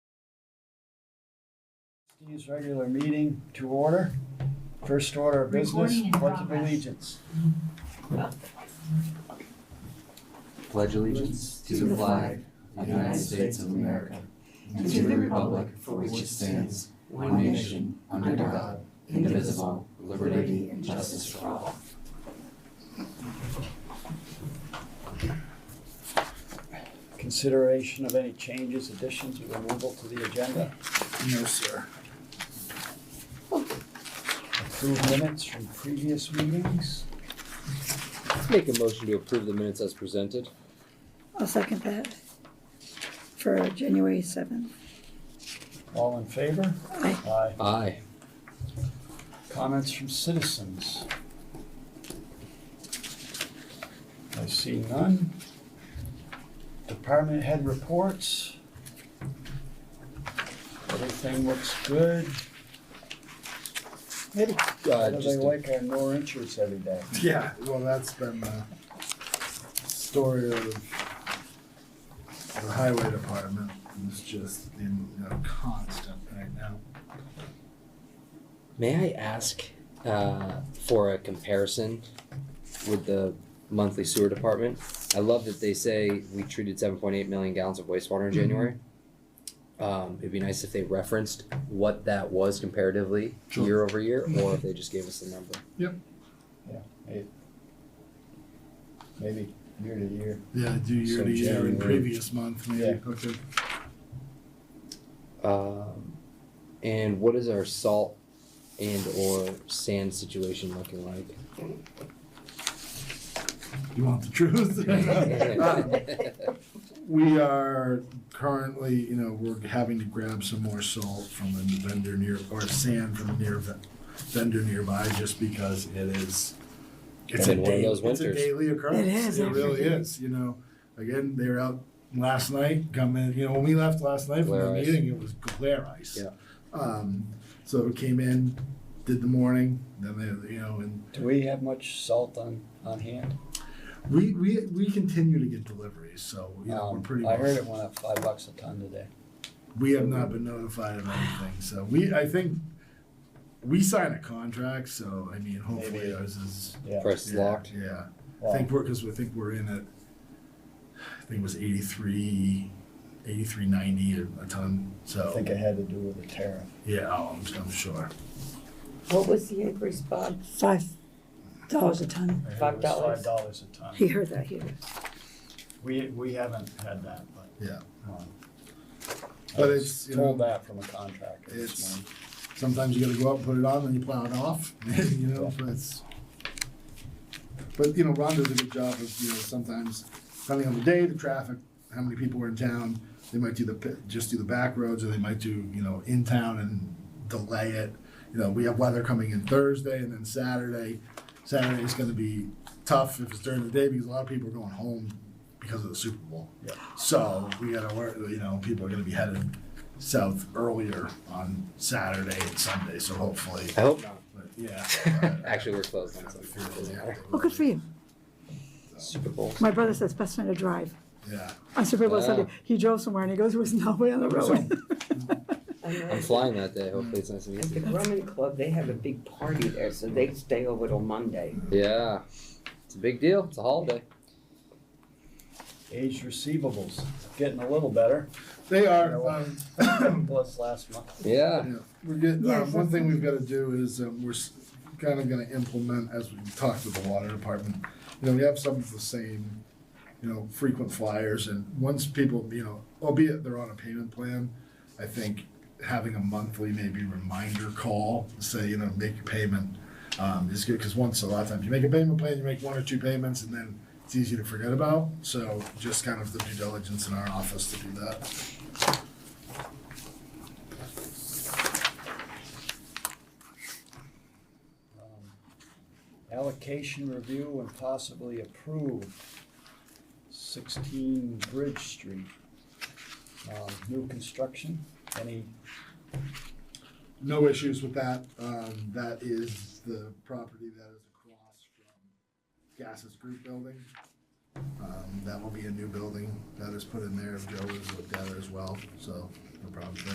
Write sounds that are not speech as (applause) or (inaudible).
Trustees' regular meeting to order. First order of business, Recording in pledge of progress. allegiance. pledge allegiance to the flag of the United States of America and to the republic for which it stands, one nation, under God, indivisible, with liberty and justice for all. Consideration of any changes, additions, or removal to the agenda? No, sir. Approved minutes from previous meetings? Make a motion to approve the minutes as presented. I'll second that for January seventh. All in favor? Aye. Aye. Aye. Comments from citizens? I see none. Department head reports. Everything looks good. Maybe, How uh, do they just, like our no insurance every day? Yeah, well, that's been the story of the highway department. It's just in you know, constant right now. may I ask, uh, for a comparison with the monthly sewer department? I love that they say we treated seven point eight million gallons of wastewater Mm-hmm. in January. Um, it'd be nice if they referenced what that was comparatively Sure. year over year, or (laughs) if they just gave us the number. Maybe year to year. Yeah, do year So to year January. and previous month, maybe. Yeah. Okay. Um, and what is our salt and or sand situation looking (laughs) like? (laughs) You want the (laughs) truth? we are currently, you know, we're having to grab some more salt from a vendor near, or sand from a near ve- vendor nearby, just because it is. It's a Been one of day, those it's a winters. daily occurrence. It is It every really day. is, you know, again, they were out last night, come in, you know, when we left last night from the Glare ice. meeting, it was glare ice. Yeah. Um, so we came in, did the morning, then they, you know, and Do we have much salt on, on hand? we, we, we continue to get deliveries, so, you know, we're Um, pretty. I well heard it went up five bucks a ton today. We have not been notified of anything, so we, I think, we sign a contract, so, I mean, hopefully Maybe. ours is. Yeah. Press yeah, locked. (laughs) Yeah, I Wow. think we're, cause we think we're in at, I think it was eighty-three, eighty-three ninety a, a ton, I so, think it had to do with the tariff. yeah, oh, I'm, I'm sure. What was the increase, Bob? Five dollars a ton. I heard it Five was dollars. Five dollars a ton. He heard that here. We, we haven't had that, but. Yeah. um, I But was it's, you know- told that from a contractor this It's- morning. Sometimes you gotta go out and put it on, and you plow it off, (laughs) you know, but it's. But, you know, Ron does a good job of, you know, sometimes, depending on the day, the traffic, how many people are in town, they might do the, pi- just do the back roads, or they might do, you know, in town and delay it. You know, we have weather coming in Thursday and then Saturday. Saturday is gonna be tough if it's during the day, because a lot of people are going home because of the Super Bowl. Yeah. So, we gotta work, you know, people are gonna be headed south earlier on Saturday and Sunday, so hopefully. I hope not. But yeah. (laughs) (laughs) Actually, we're closed on Something Sunday. for Doesn't matter. the- Well, Oh, good for you. Super Bowl. My brother says best time to drive. Yeah. On Super Bowl Ah. Sunday, he drove somewhere and he goes, there was nobody on the road. I know I'm flying that day. Hopefully, it's nice and At the easy. Grumman Club, they have a big party there, so they stay over till Monday. Yeah, it's a big deal. It's a holiday. Age receivables, getting a little better, They are, um, plus last month. Yeah. yeah, we're getting, Yeah, um, one thing we've gotta do is, um, we're kind of gonna implement, as we talked with the water department, you know, we have some of the same, you know, frequent flyers, and once people, you know, albeit they're on a payment plan, I think having a monthly maybe reminder call, say, you know, make your payment, um, is good, because once, a lot of times, you make a payment plan, you make one or two payments, and then it's easy to forget about, so just kind of the due diligence in our office to do that. Um, Allocation review and possibly approve sixteen Bridge Street. Um, new construction, any, No issues with that. Um, that is the property that is across from Gases Group Building. Um, that will be a new building that is put in there. Joe has looked at it as well, so no problem there.